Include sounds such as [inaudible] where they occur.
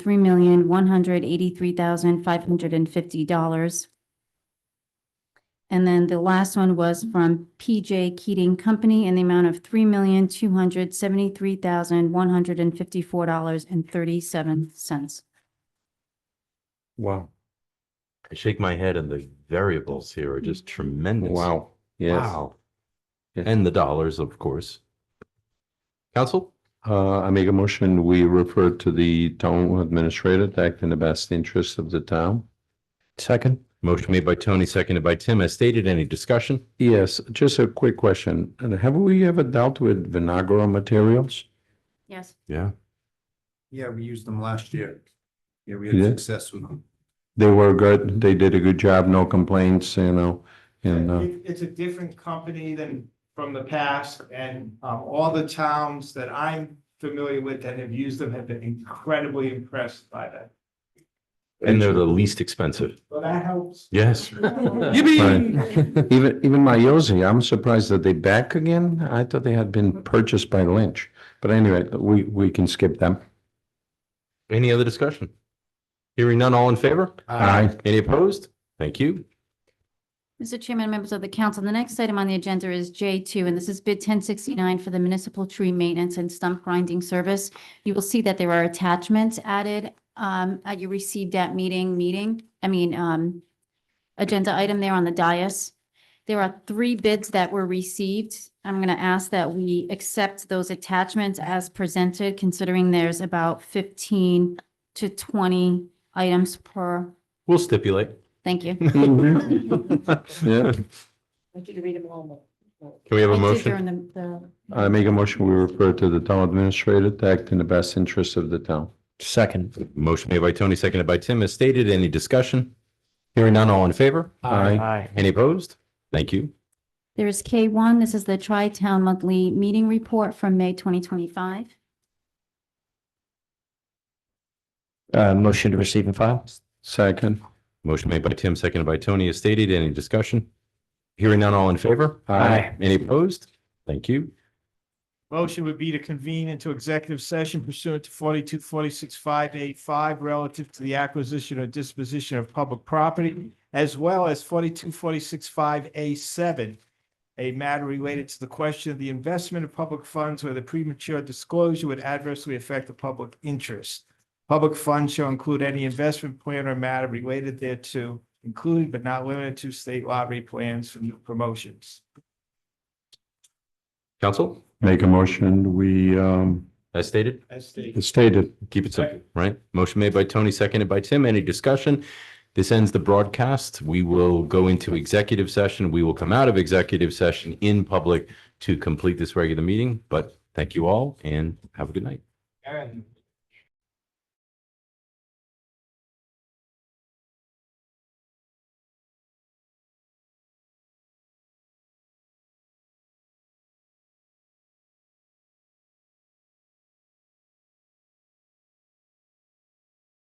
three million, one hundred eighty-three thousand, five hundred and fifty dollars. And then the last one was from PJ Keating Company in the amount of three million, two hundred seventy-three thousand, one hundred and fifty-four dollars and thirty-seven cents. Wow. I shake my head and the variables here are just tremendous. Wow. Yes. Wow. Yes. And the dollars, of course. Council, Uh, I make a motion, we refer to the town administrator to act in the best interest of the town. Second. motion made by Tony, seconded by Tim. As stated, any discussion? Yes, just a quick question. And Have we ever dealt with Vinagro materials? Yes. Yeah. Yeah, we used them last year. Yeah, we You had did? success with them. They were good. They did a good job. No complaints, you know, and, [laughs] uh, It- It's a different company than from the past and um, all the towns that I'm familiar with that have used them have been incredibly impressed by that. And they're the least expensive. Well, that helps. [laughs] Yes. Right. even, even my Yosi, I'm surprised that they back again. I thought they had been purchased by Lynch. But anyway, we, we can skip them. [laughs] Any other discussion? Hearing none, all in favor? Aye. Any opposed? Thank you. Mr. Chairman, members of the council, the next item on the agenda is J two, and this is bid ten sixty-nine for the municipal tree maintenance and stump grinding service. You will see that there are attachments added um at your received at meeting, meeting, I mean, um agenda item there on the dais. There are three bids that were received. I'm gonna ask that we accept those attachments as presented, considering there's about fifteen to twenty items per, We'll stipulate. thank you. Yeah, Can we have I a did motion? during the- the- I make a motion, we refer to the town administrator to act in the best interest of the town. Second. Motion made by Tony, seconded by Tim. As stated, any discussion? Hearing none, all in favor? Aye. Aye. Any opposed? Thank you. There is K one, this is the Tri-Town Monthly Meeting Report from May twenty twenty-five. Uh, motion to receive and file? Second. Motion made by Tim, seconded by Tony, as stated. Any discussion? Hearing none, all in favor? Aye. Any opposed? Thank you. Motion would be to convene into executive session pursuant to forty-two, forty-six, five, eight, five relative to the acquisition or disposition of public property as well as forty-two, forty-six, five, A seven, a matter related to the question of the investment of public funds where the premature disclosure would adversely affect the public interest. Public funds shall include any investment plan or matter related thereto, including but not limited to state lottery plans for new promotions. Council, Make a motion, we, um, as stated, As stated. stated. keep it simple, right? Motion made by Tony, seconded by Tim. Any discussion? This ends the broadcast. We will go into executive session. We will come out of executive session in public to complete this regular meeting. But thank you all and have a good night. Aaron.